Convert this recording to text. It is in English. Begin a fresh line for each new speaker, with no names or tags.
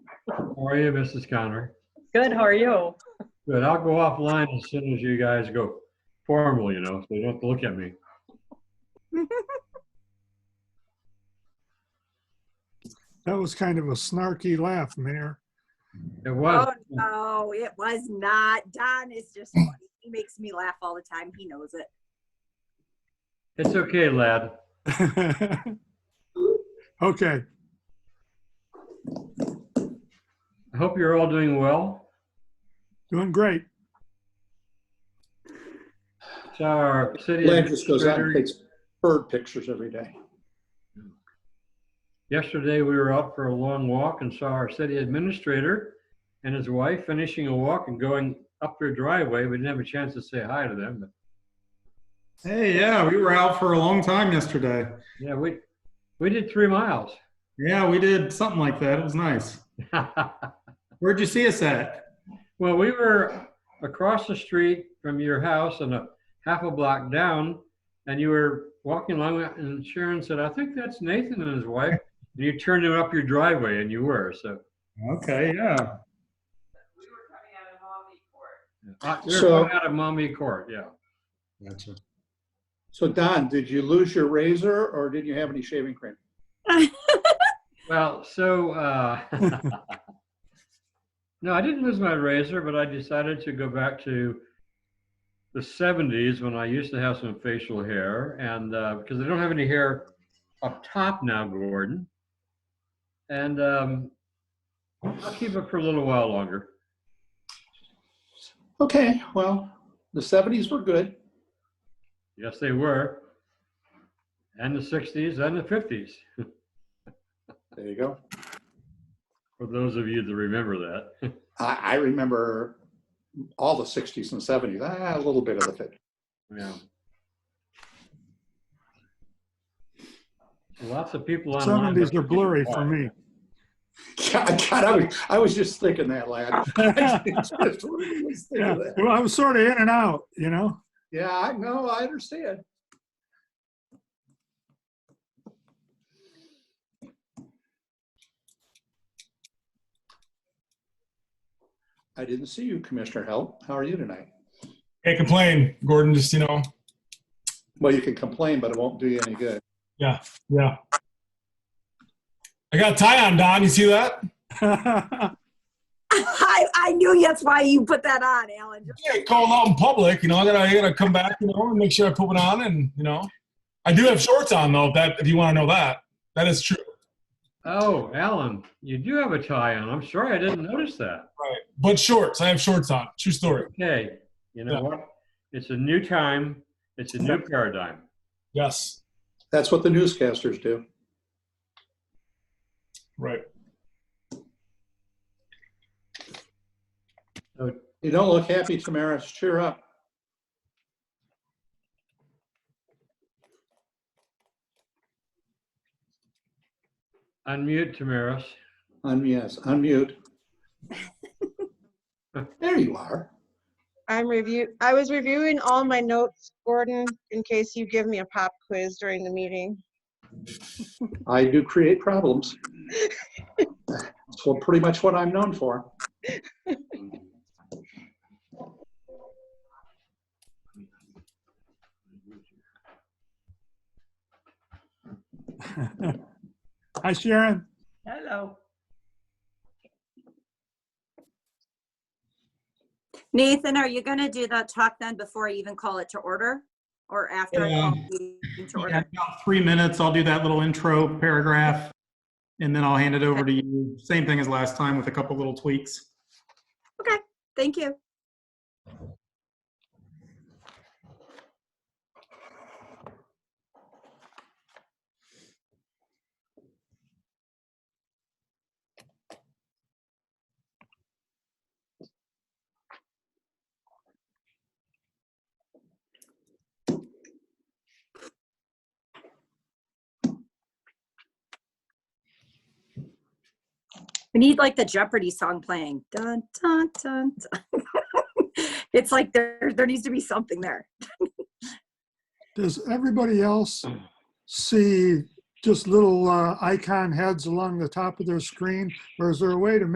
How are you, Mrs. Connor?
Good, how are you?
Good. I'll go offline as soon as you guys go formal, you know, so you don't have to look at me.
That was kind of a snarky laugh, Mayor.
It
Oh,
was,
no, it was not. Don is just funny. He makes me laugh all the time. He knows it.
it's okay, lad.
Okay,
I hope you're all doing well.
doing great.
So our city
Land just goes out and
administrator,
takes bird pictures every day.
yesterday we were out for a long walk and saw our city administrator and his wife finishing a walk and going up their driveway. We didn't have a chance to say hi to them, but
Hey, yeah, we were out for a long time yesterday.
yeah, we, we did three miles.
Yeah, we did something like that. It was nice. Where'd you see us at?
Well, we were across the street from your house and a half a block down, and you were walking along, and Sharon said, "I think that's Nathan and his wife." And you turned him up your driveway, and you were so.
Okay, yeah.
Uh, we were
So-
coming out of mommy court, yeah.
Gotcha.
So Don, did you lose your razor or didn't you have any shaving cream?
Well, so uh, no, I didn't lose my razor, but I decided to go back to the 70s when I used to have some facial hair, and uh, because I don't have any hair up top now, Gordon, and um, I'll keep it for a little while longer.
Okay, well, the seventies were good.
Yes, they were, and the 60s and the 50s
There you go.
for those of you that remember that.
I, I remember all the sixties and seventies, ah, a little bit of the fifties.
yeah. Lots of people online.
Seventies are blurry for me.
God, God, I was, I was just thinking that, lad. I just really was
Yeah,
thinking that.
well, I was sort of in and out, you know?
Yeah, I know, I understand. I didn't see you, Commissioner Hell. How are you tonight?
Can't complain, Gordon. Just you know,
Well, you can complain, but it won't do you any good.
yeah. I got a tie on, Don. You see that?
I, I knew that's why you put that on, Alan.
I get called out in public. You know, I gotta, I gotta come back. You know, and make sure I put one on, and you know, I do have shorts on though. If that, if you want to know that, that is true.
Oh, Alan, you do have a tie on. I'm sorry, I didn't notice that.
But shorts, I have shorts on. True story.
Okay, you
Yeah.
know what? It's a new time. It's a new paradigm.
Yes,
That's what the newscasters do.
right.
You don't look happy, Tamara. Cheer up.
Unmute, Tamaris.
Un- yes, unmute. There you are.
I'm review, I was reviewing all my notes, Gordon, in case you give me a pop quiz during the meeting.
I do create problems. That's what, pretty much what I'm known for.
Hi, Sharon.
Hello.
Nathan, are you gonna do the talk then before I even call it to order? Or after? I call the meeting to
Yeah,
order?
about three minutes. I'll do that little intro paragraph and then I'll hand it over to you. Same thing as last time with a couple little tweaks.
Thank you. We need like the Jeopardy song playing. Dun, dun, dun, dun. it's like there, there needs to be something there.
Does everybody else see just little uh, icon heads along the top of their screen? Or is there a way to